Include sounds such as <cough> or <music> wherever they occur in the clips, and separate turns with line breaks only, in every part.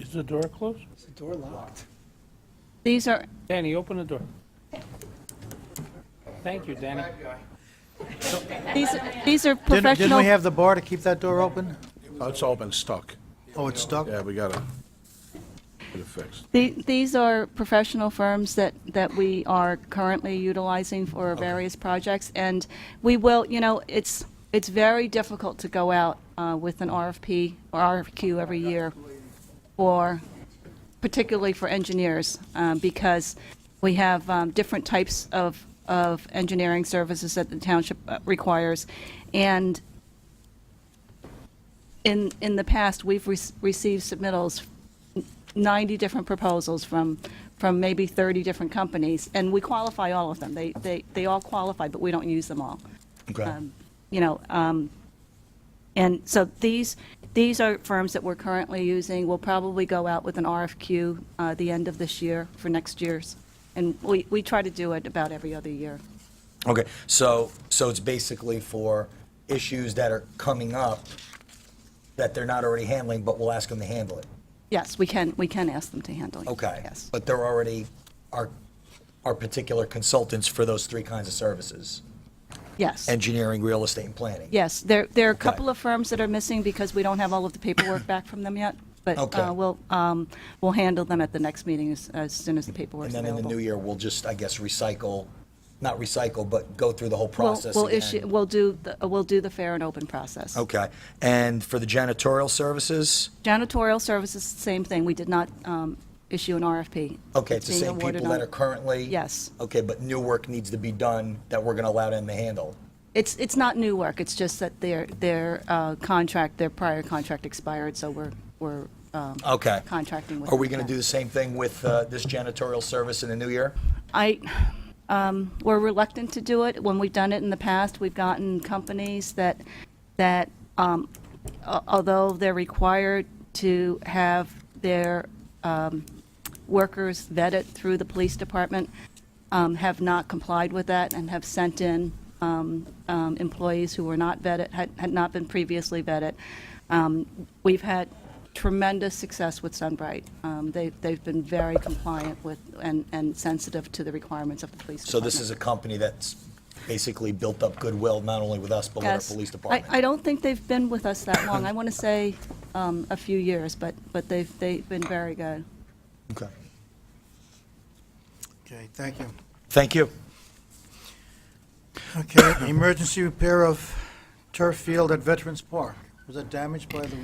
Is the door closed?
Is the door locked?
These are,
Danny, open the door. Thank you, Danny.
these, these are
Didn't didn't we
professional,
have the bar to keep that door open?
Oh, It's all been stuck.
Oh, it's stuck?
Yeah, we gotta get it fixed.
the- these are professional firms that, that we are currently utilizing for various projects. And we will, you know, it's, it's very difficult to go out uh, with an RFP or RFQ every year for, particularly for engineers, um, because we have um, different types of, of engineering services that the township uh, requires. And in, in the past, we've rec- received submittals, 90 different proposals from, from maybe 30 different companies, and we qualify all of them. They, they, they all qualify, but we don't use them all.
Okay.
Um, You know, um, and so these, these are firms that we're currently using. We'll probably go out with an RFQ uh, the end of this year for next year's. And we, we try to do it about every other year.
Okay, so, so it's basically for issues that are coming up that they're not already handling, but we'll ask them to handle it.
Yes, we can, we can ask them to handle it.
Okay.
Yes.
But they're already our our particular consultants for those three kinds of services,
Yes.
engineering, real estate, and planning.
Yes, there, there are a couple of firms that are missing because we don't have all of the paperwork back from them yet, but
Okay.
uh, we'll, um, we'll handle them at the next meeting as, as soon as the
And
paperwork's
then in the
available.
new year, we'll just, I guess, recycle, not recycle, but go through the whole
We'll,
process
we'll issue,
again.
we'll do, the- we'll do the fair and open process.
Okay. And for the janitorial services?
Janitorial services, same thing, we did not um, issue an RFP.
Okay, it's the
being
same
awarded
people that
on-
are currently?
Yes.
Okay, but new work needs to be done that we're going to allow them to handle.
It's, it's not new work, it's just that their, their uh, contract, their prior contract expired, so we're, we're um,
Okay.
contracting with.
Are we going
them
to
again.
do the same thing with uh, this janitorial service in the new year?
I, um, we're reluctant to do it. When we've done it in the past, we've gotten companies that, that, um, a- although they're required to have their, um, workers vetted through the police department, um, have not complied with that and have sent in, um, um, employees who were not vetted, had, had not been previously vetted. Um, we've had tremendous success with Sunbright. Um, they, they've been very compliant with and, and sensitive to the requirements of the police
So
department.
this is a company that's basically built up goodwill, not only with us, but with our
Yes.
police
I, I
department.
don't think they've been with us that long. I want to say, um, a few years, but, but they've, they've been very good.
Okay.
Okay, thank you.
Thank you.
Okay, <coughs> emergency repair of turf field at Veterans Park. Was that damaged by the-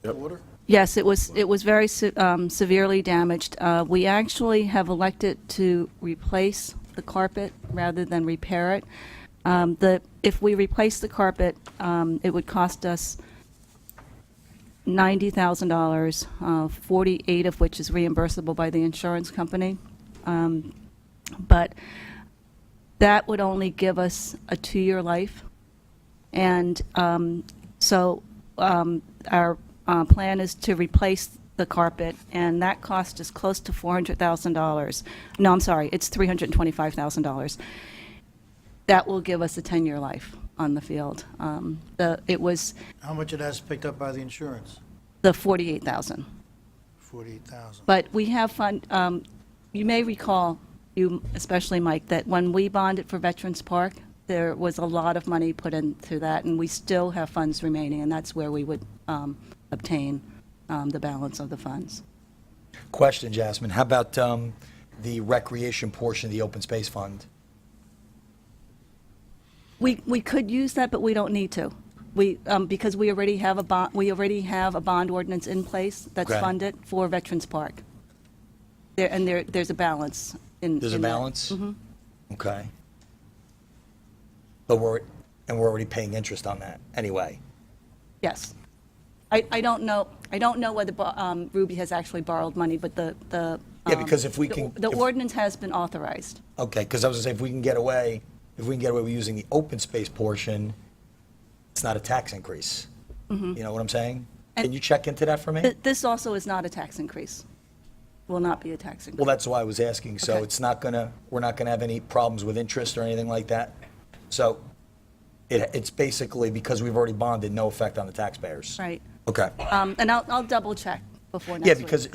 the
Yep.
water?
Yes, it was, it was very se- um, severely damaged. Uh, We actually have elected to replace the carpet rather than repair it. Um, The, if we replace the carpet, um, it would cost us $90,000, uh, 48 of which is reimbursable by the insurance company. Um, But that would only give us a two-year life. And um, so um, our uh, plan is to replace the carpet, and that cost is close to $400,000. No, I'm sorry, it's $325,000. That will give us a 10-year life on the field. Um, The, it was
How much of that's picked up by the insurance?
the 48,000.
48,000.
But we have fund, um, you may recall, you especially, Mike, that when we bonded for Veterans Park, there was a lot of money put into that, and we still have funds remaining, and that's where we would um, obtain um, the balance of the funds.
Question, Jasmine, how about um, the recreation portion of the open space fund?
We, we could use that, but we don't need to. We, um, because we already have a bond, we already have a bond ordinance in place that's
Okay.
funded for Veterans Park. There, and there, there's a balance in.
There's a
in Mm-hmm. that.
balance? Okay. But we're, and we're already paying interest on that, anyway.
Yes. I, I don't know, I don't know whether bo- um, Ruby has actually borrowed money, but the, the.
Yeah,
um,
because if we
the-
can-
The
if-
ordinance has been authorized.
Okay, because I was gonna say, if we can get away, if we can get away with using the open space portion, it's not a tax increase. You know what I'm saying? Can
Mm-hmm. And-
you check into that for me?
Th- This also is not a tax increase, will not be a tax
Well,
increase.
that's why I was asking, so
Okay.
it's not gonna, we're not gonna have any problems with interest or anything like that? So it, it's basically because we've already bonded, no effect on the taxpayers?
Right. Uh,
Okay.
Um, And I'll, I'll double check before next
Yeah,
week.
because